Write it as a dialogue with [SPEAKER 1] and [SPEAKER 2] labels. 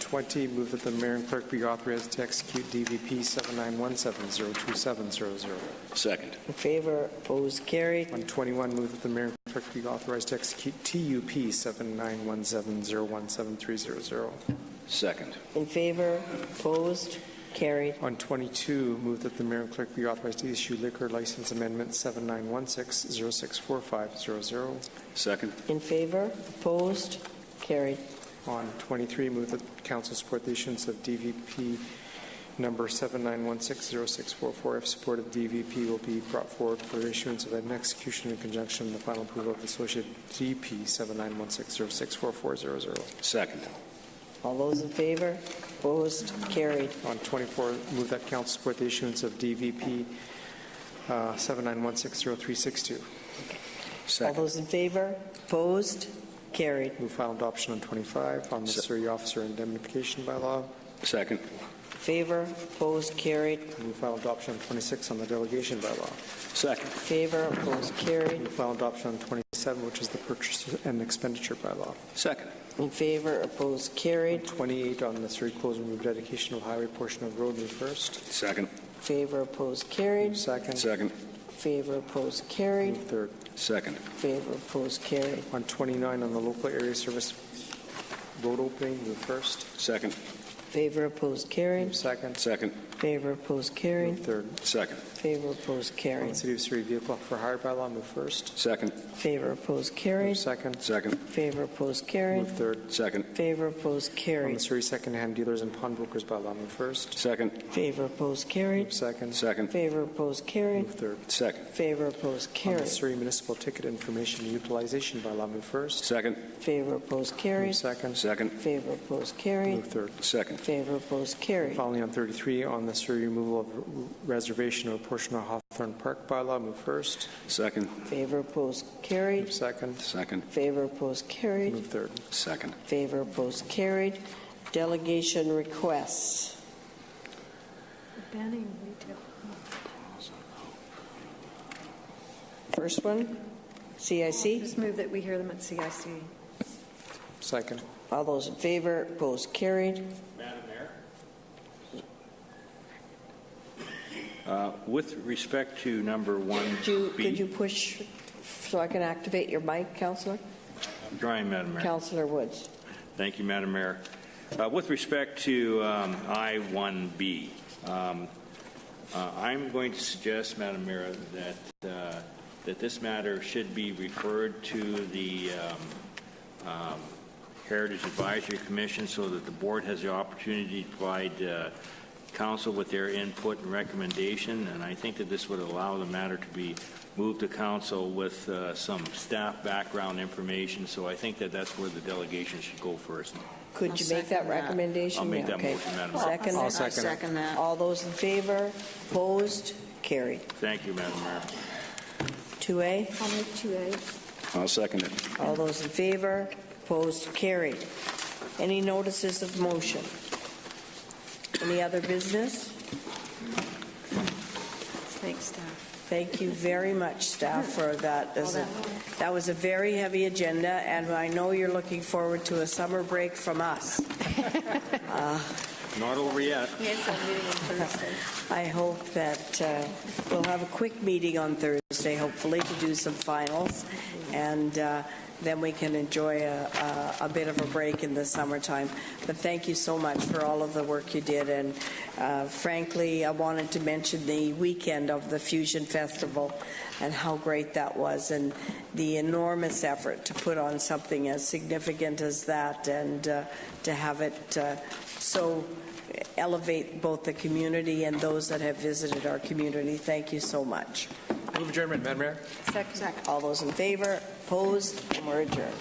[SPEAKER 1] 20, move that the mayor and clerk be authorized to execute DVP 79170270.
[SPEAKER 2] Second.
[SPEAKER 3] In favor, opposed, carried.
[SPEAKER 1] 121, move that the mayor and clerk be authorized to execute TUP 7917017300.
[SPEAKER 2] Second.
[SPEAKER 3] In favor, opposed, carried.
[SPEAKER 1] On 22, move that the mayor and clerk be authorized to issue liquor license amendment 7916064500.
[SPEAKER 2] Second.
[SPEAKER 3] In favor, opposed, carried.
[SPEAKER 1] On 23, move that council support the issuance of DVP number 79160644. If support of DVP will be brought forward for issuance of an execution in conjunction with the final approval of the associated DP 7916064400.
[SPEAKER 2] Second.
[SPEAKER 3] All those in favor, opposed, carried.
[SPEAKER 1] On 24, move that council support the issuance of DVP uh, 79160362.
[SPEAKER 3] All
[SPEAKER 2] Second.
[SPEAKER 3] those in favor, opposed, carried.
[SPEAKER 1] Move final adoption on 25 on the
[SPEAKER 2] Se-
[SPEAKER 1] Surrey Officer Indemnification Bylaw.
[SPEAKER 2] Second.
[SPEAKER 3] In favor, opposed, carried. In
[SPEAKER 1] Move final adoption on 26 on the Delegation Bylaw.
[SPEAKER 2] Second.
[SPEAKER 3] favor, opposed, carried.
[SPEAKER 1] Move final adoption on 27, which is the purchase and expenditure bylaw.
[SPEAKER 2] Second.
[SPEAKER 3] In favor, opposed, carried.
[SPEAKER 1] 28 on the Surrey Close and Remove Dedication of Highway portion of road, move first.
[SPEAKER 2] Second.
[SPEAKER 3] In favor, opposed, carried.
[SPEAKER 1] Move second.
[SPEAKER 2] Second.
[SPEAKER 3] In favor, opposed, carried.
[SPEAKER 1] Move third.
[SPEAKER 2] Second.
[SPEAKER 3] In favor, opposed, carried.
[SPEAKER 1] On 29, on the Local Area Service Road Opening, move first.
[SPEAKER 2] Second.
[SPEAKER 3] In favor, opposed, carried.
[SPEAKER 1] Move second.
[SPEAKER 2] Second.
[SPEAKER 3] In favor, opposed, carried.
[SPEAKER 1] Move third.
[SPEAKER 2] Second.
[SPEAKER 3] In favor, opposed,
[SPEAKER 1] On the
[SPEAKER 3] carried.
[SPEAKER 1] City of Surrey Vehicle for Hire bylaw, move first.
[SPEAKER 2] Second.
[SPEAKER 3] In favor, opposed,
[SPEAKER 1] Move
[SPEAKER 3] carried.
[SPEAKER 1] second.
[SPEAKER 2] Second.
[SPEAKER 3] In favor, opposed, carried.
[SPEAKER 1] Move third.
[SPEAKER 2] Second.
[SPEAKER 3] In favor, opposed,
[SPEAKER 1] On the
[SPEAKER 3] carried.
[SPEAKER 1] Surrey Secondhand Dealers and Pawnbrokers bylaw, move first.
[SPEAKER 2] Second.
[SPEAKER 3] In favor, opposed,
[SPEAKER 1] Move
[SPEAKER 3] carried.
[SPEAKER 1] second.
[SPEAKER 3] In
[SPEAKER 2] Second.
[SPEAKER 3] favor, opposed, carried.
[SPEAKER 1] Move third.
[SPEAKER 2] Second.
[SPEAKER 3] In favor, opposed,
[SPEAKER 1] On the
[SPEAKER 3] carried.
[SPEAKER 1] Surrey Municipal Ticket Information Utilization bylaw, move first.
[SPEAKER 2] Second.
[SPEAKER 3] In favor, opposed,
[SPEAKER 1] Move
[SPEAKER 3] carried.
[SPEAKER 1] second.
[SPEAKER 2] Second.
[SPEAKER 3] In favor, opposed, carried.
[SPEAKER 1] Move third.
[SPEAKER 2] Second.
[SPEAKER 3] In favor, opposed, carried.
[SPEAKER 1] Finally, on 33, on the Surrey removal of reservation of a portion of Hawthorne Park bylaw, move first.
[SPEAKER 2] Second.
[SPEAKER 3] In favor, opposed, carried.
[SPEAKER 1] Move second.
[SPEAKER 2] Second.
[SPEAKER 3] In favor, opposed, carried.
[SPEAKER 1] Move third.
[SPEAKER 2] Second.
[SPEAKER 3] In favor, opposed, carried. Delegation requests.
[SPEAKER 4] Banning retail.
[SPEAKER 3] First one, CIC.
[SPEAKER 4] Just move that we hear them at CIC.
[SPEAKER 1] Second.
[SPEAKER 3] All those in favor, opposed, carried.
[SPEAKER 5] Uh, With respect to number one
[SPEAKER 3] Could you,
[SPEAKER 5] B,
[SPEAKER 3] could you push so I can activate your mic, Counselor?
[SPEAKER 5] I'm trying, Madam Mayor.
[SPEAKER 3] Counselor Woods.
[SPEAKER 5] Thank you, Madam Mayor. Uh, With respect to um, I-1B, um, uh, I'm going to suggest, Madam Mayor, that, uh, that this matter should be referred to the um, um, Heritage Advisory Commission so that the board has the opportunity to provide uh, council with their input and recommendation, and I think that this would allow the matter to be moved to council with uh, some staff background information, so I think that that's where the delegation should go first.
[SPEAKER 3] Could you make that recommendation?
[SPEAKER 5] I'll make
[SPEAKER 3] Yeah,
[SPEAKER 5] that
[SPEAKER 3] okay.
[SPEAKER 5] motion, Madam Mayor.
[SPEAKER 3] Second.
[SPEAKER 1] I'll second it.
[SPEAKER 3] All those in favor, opposed, carried.
[SPEAKER 5] Thank you, Madam Mayor.
[SPEAKER 3] 2A,
[SPEAKER 4] I'll move 2A.
[SPEAKER 2] I'll second it.
[SPEAKER 3] all those in favor, opposed, carried. Any notices of motion? Any other business?
[SPEAKER 4] Thanks, staff.
[SPEAKER 3] Thank you very much, staff, for that. This is-
[SPEAKER 4] All that work.
[SPEAKER 3] That was a very heavy agenda, and I know you're looking forward to a summer break from us.
[SPEAKER 5] Not over yet.
[SPEAKER 4] We have some meeting on Thursday.
[SPEAKER 3] I hope that uh, we'll have a quick meeting on Thursday, hopefully, to do some finals, and uh, then we can enjoy a- a a bit of a break in the summertime. But thank you so much for all of the work you did, and uh, frankly, I wanted to mention the weekend of the Fusion Festival and how great that was, and the enormous effort to put on something as significant as that, and uh, to have it uh, so elevate both the community and those that have visited our community. Thank you so much.
[SPEAKER 1] Move adjournment, Madam Mayor.
[SPEAKER 4] Second.
[SPEAKER 3] All those in favor, opposed, and we're adjourned.